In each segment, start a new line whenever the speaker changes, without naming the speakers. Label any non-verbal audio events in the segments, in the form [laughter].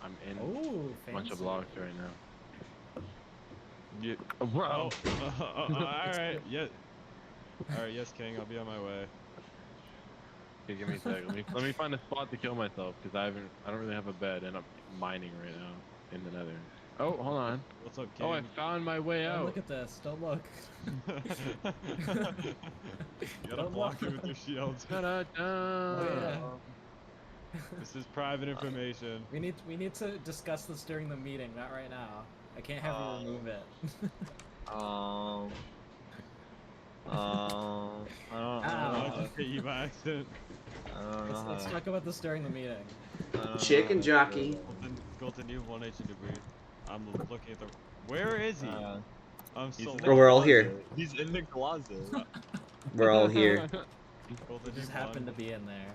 I'm in
Oh,
a
fancy.
bunch of blocks right now. Yeah, bro.
[laughs] Oh, all right. Yeah. All right. Yes, King. I'll be on my way.
Okay, give me a sec. Let me let me find a spot to kill myself because I haven't. I don't really have a bed, and I'm mining right now in the Nether. Oh, hold on.
What's up, King?
Oh, I found my way
Oh,
out.
look at this. Don't look. [laughs]
[laughs] you gotta block it with your
[laughs]
shields.
Ta-da-da.
Oh,
This is private information.
We need we need to discuss this during the meeting, not right now. I can't have
Uh,
you remove it. [laughs]
Um. Um. I
I
don't,
Ow.
I
just hit you by accident.
don't, I don't know.
let's, let's
how-
talk about this during the meeting.
I don't know
Chicken
how to
jockey.
do
Golden, Golden, you have one H in debris. I'm looking at the. Where is
it.
he?
Uh,
I'm
he's
so.
in the
Or we're all here.
closet. He's in the closet.
[laughs] We're all here.
Golden,
It just
you won.
happened to be in there.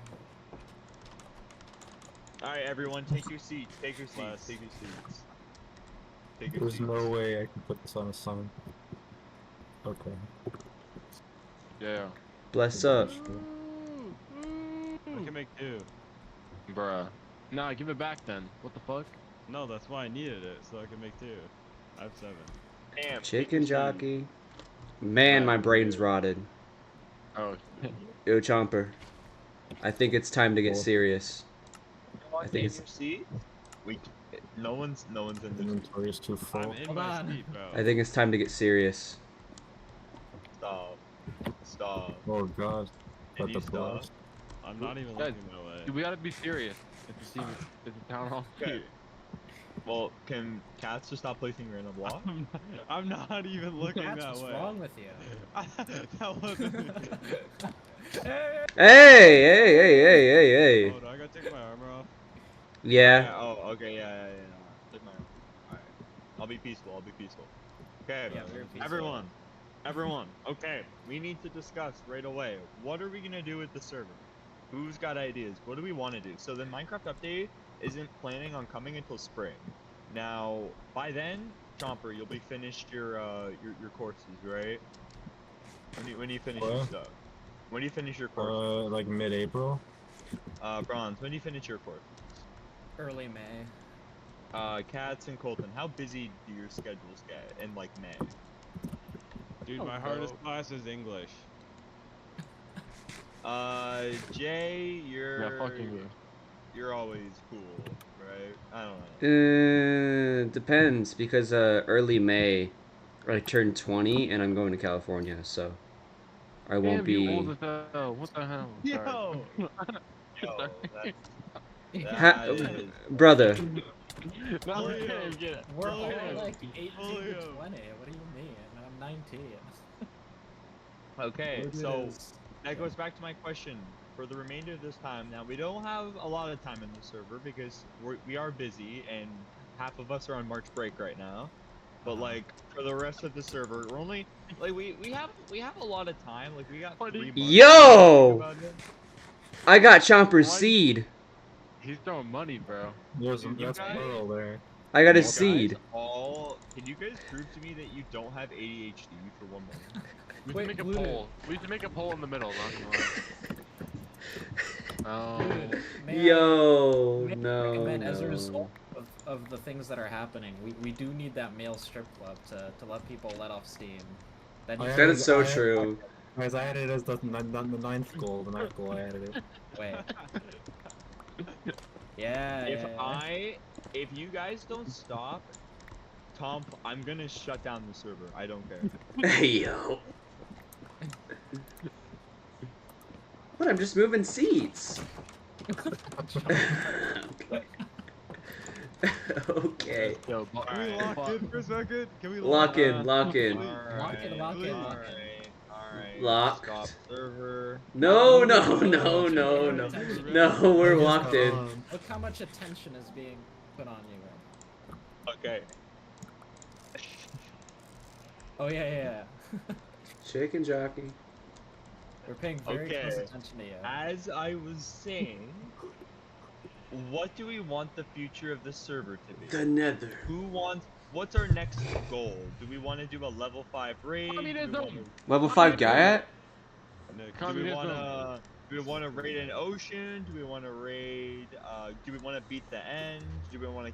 [laughs] All right, everyone, take your seats. Take your seats.
Bless.
Take your seats. Take your
There's
seats.
no way I can put this on a summon. Okay.
[laughs] Yeah.
Bless up.
I can make two.
Bruh. Nah, give it back then. What the fuck?
No, that's why I needed it, so I can make two. I have seven.
Damn, take your
Chicken
seats.
jockey. Man, my brain's rotted.
Oh,
Yo, Chomper. I think it's time to get
Cool.
serious.
Everyone
I think
take
it's-
your seat. We. c- No one's. No one's in
The
the.
inventory is too
I'm
full.
in
Hold
my
on.
seat, bro.
I think it's time to get serious.
Stop. Stop.
Oh god.
Did
But the
you stop?
blast.
I'm not even
Guys,
looking my way.
dude, we gotta be serious. It's the, it's the town [laughs] hall.
Okay. Well, can cats just stop placing random blocks?
I'm not, I'm not even looking
That's
that
what's
way.
wrong with you.
[laughs]
[laughs]
that [laughs] wasn't.
Hey, hey, hey, hey, [laughs] hey,
Oh,
hey.
do I gotta take my armor off?
Yeah.
Yeah, Oh, okay, yeah, yeah, yeah. Take my arm. Alright. I'll be peaceful, I'll be peaceful. Okay,
Yeah, very peaceful.
everyone. Everyone, okay, we need to discuss right away. What are we gonna do with the server? Who's got ideas? What do we want to do? So the Minecraft update isn't planning on coming until spring. Now, by then, Chomper, you'll be finished your uh your, your courses, right? When do you, when do you finish your
Huh?
stuff? When do you finish your course?
Uh, like mid-April.
Uh, Bronze, when do you finish your course?
Early May.
Uh, Cats and Colton, how busy do your schedules get in like May?
Dude,
Oh,
my hardest
bro.
class is English.
Uh, Jay, you're
Yeah, fucking you.
you're always cool, right? I don't know.
Uh, depends because uh, early May, I turn 20 and I'm going to California, so I won't
Damn, you old
be.
as hell. What the hell? Sorry. [laughs]
Yo, that's,
Ha-
that is,
[laughs] Brother,
No,
Oh,
I
yeah.
can't get it.
We're all
Julio.
like 18 to 20.
Julio.
What do you mean? I'm 19.
okay,
It
so
is.
that goes back to my question. For the remainder of this time, now we don't have a lot of time in the server because we're, we are busy and half of us are on March break right now. But like for the rest of the server, we're only like we, we have we have a lot of time. Like we got
Buddy.
three months to
Yo!
think about it.
I got Chomper's
Why-
seed.
He's throwing money, bro.
There's
You
that's
guys-
pearl there.
I got
You
a
guys
seed.
All can you guys prove to me that you don't have ADHD for one moment?
We
Wait,
should make a
Blue.
poll. We should make a poll in the middle. Not gonna lie. Um,
Dude, may I-
Yo,
may I
no.
recommend As a
no.
result of, of the things that are happening, we, we do need that male strip club to, to let people let off steam. That
I
needs
That
to
am-
is so true.
Guys, I added it as the, the, the ninth goal. The ninth goal I added it.
wait.
[laughs]
Yeah.
if
yeah, yeah.
I, if you guys don't stop, Tom, I'm gonna shut down the server. I don't care.
Hey yo. What? I'm just moving seats. [laughs]
[laughs]
okay.
Yo, bu-
Can we
fuck.
lock in for a second? Can we lock,
Lock in, lock in.
Lock it, lock it,
All
lock
right. All right.
Locked.
Stop server.
No, no, no, no, no. No, we're
Just
locked
got
in.
on.
Look how much attention is being put on you. Right?
Okay.
Oh yeah, yeah, yeah.
Chicken jockey.
We're paying very close
Okay.
attention to you.
As I was saying, what do we want the future of the server to be?
The nether.
Who wants? What's our next goal? Do we want to do a level five raid? Do we
Communism.
wanna-
Level 5 guy at?
Nick,
Do we
Communism.
want to? Do we want to raid an ocean? Do we want to raid? Uh, do we want to beat the end? Do we want to